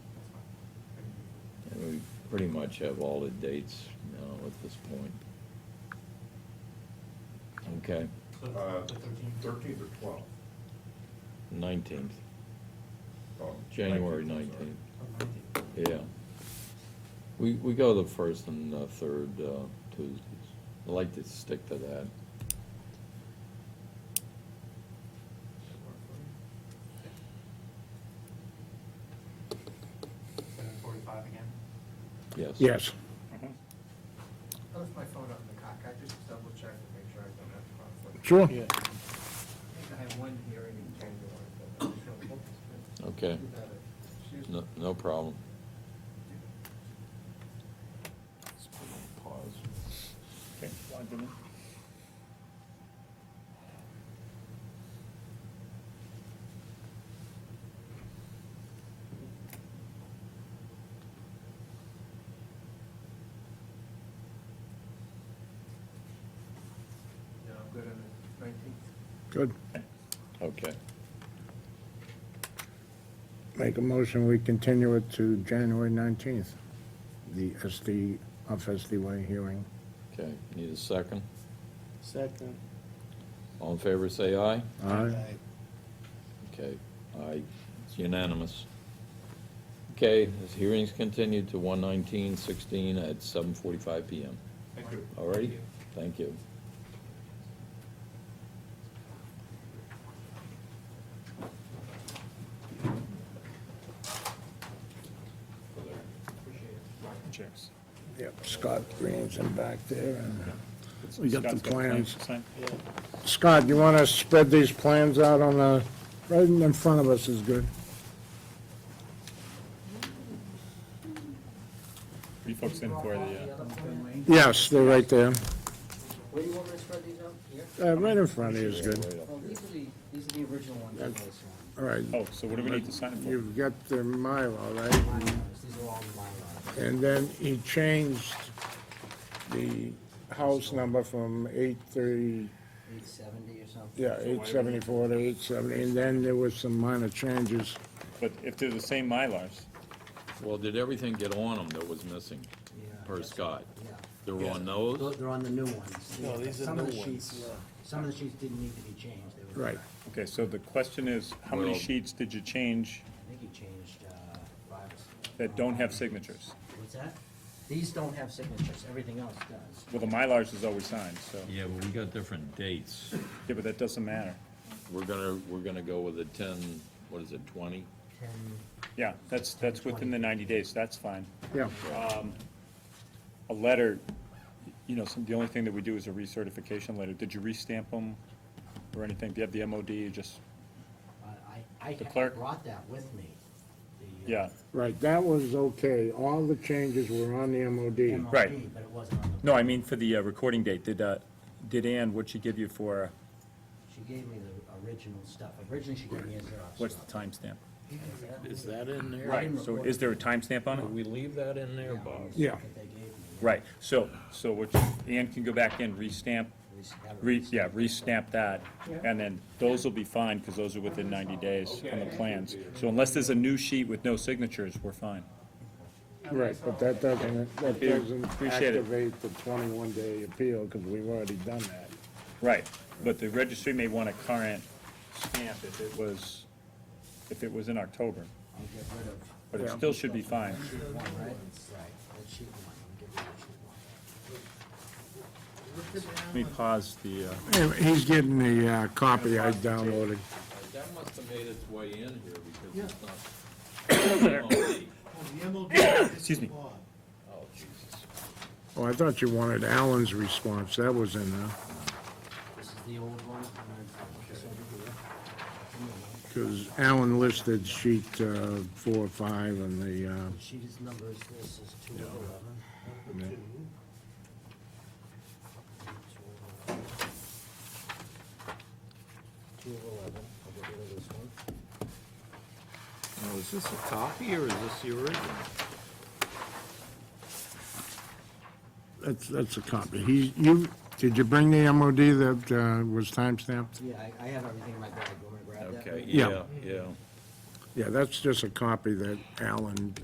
pretty much have all the dates now at this point. Okay, The Uh, the 13th. Thirteenth or twelfth? nineteenth, Oh, January 19th, sorry. nineteenth, or 19th. yeah. We, we go the first and the third uh, Tuesdays. I like to stick to that. Seven forty-five again. Yes. Yes. I left my phone out in the cock, I just double checked to make sure I don't have conflict. Sure. I think I have one hearing in January, but I'm sure we'll just- Okay. You got it. Excuse me. No, no problem. No, I'm good on the nineteenth. Good. Okay. Make a motion, we continue it to January 19th, the SD, off SD Way hearing. Okay, need a second? Second. All in favor, say aye. Aye. Okay, aye, it's unanimous. Okay, this hearing's continued to one nineteen sixteen at seven forty-five PM. Thank you. All righty? Thank you. Cheers. Yep, Scott Green's in back there, and we got the Scott's plans. Sign. Scott, you want to spread these plans out on the, right in front of us is good. Are you folks in for the, uh, Yes, they're right there. Where do you want me to spread these out? Here? Uh, Right in front of you is good. Oh, these are the, these are the original ones. I placed on. All right. oh, so what do we need to sign it for? You've got the Mylar, right? Mine are ours. These are all mine. And then he changed the house number from 830, Eight seventy or something. yeah, 874 to 870, and then there was some minor changes. But if they're the same Mylars, Well, did everything get on them that was missing, Yeah. per Scott? Yeah. There were on Tho- those? They're on the new ones. No, these are Some of new the sheets- ones. Some of the sheets didn't need to be changed. They were- Right. okay, so the question is, how many Well- sheets did you change I think you changed uh, five. or six. that don't have signatures? What's that? These don't have signatures, everything else does. Well, the Mylars is always signed, so, Yeah, but we got different dates. yeah, but that doesn't matter. We're gonna, we're gonna go with a ten, what is it, twenty? Ten, Yeah, that's, that's within the ninety days, that's fine. Yeah, A letter, you know, some, the only thing that we do is a recertification letter. Did you restamp them or anything? Do you have the MOD, you just, I, I The I clerk? brought that with me. the, yeah. uh, right, that was okay. All the changes were on the MOD. MLB, Right. But it wasn't on the. No, I mean for the uh, recording date, did, uh, did Ann, what'd she give you for, uh, She gave me the original stuff. Originally, she gave me a Xerox. what's the stuff. timestamp? Is that in there? Right, so is there a timestamp on it? Did we leave that in there, Bob? Yeah. That they gave me. Right, so, so what, you- Ann can go back in, restamp, We should have it. re, yeah, restamp that, and then those will be fine, because those are within ninety days on the plans. So unless there's a new sheet with no signatures, we're fine. Right, but that doesn't, that Yeah, doesn't appreciate it. activate the 21-day appeal, because we've already done that. Right, but the registry may want a current stamp if it was, if it was in October, I'll get rid of but it Yeah. still should be fine. sheet one, right? Right, that's sheet one. I'll get rid of sheet one. Let me pause the, uh, Yeah, He's getting the uh, copy I downloaded. That must have made its way in here because it's not. The MOD is excuse me, law. Oh, Jesus. Oh, I thought you wanted Alan's response. That was in there, This is the old one, and then this over here. And the one. because Alan listed sheet uh, four, five, and the, uh, The sheet is numbers, this is two of eleven. Yeah. Two of eleven, I'll get rid of this one. Now, is this a copy or is this the original? That's, that's a copy. He, you, did you bring the MOD that uh, was timestamped? Yeah, I, I have everything in my bag, you wanna grab that? Okay, Yeah. yeah, yeah. Yeah, that's just a copy that Alan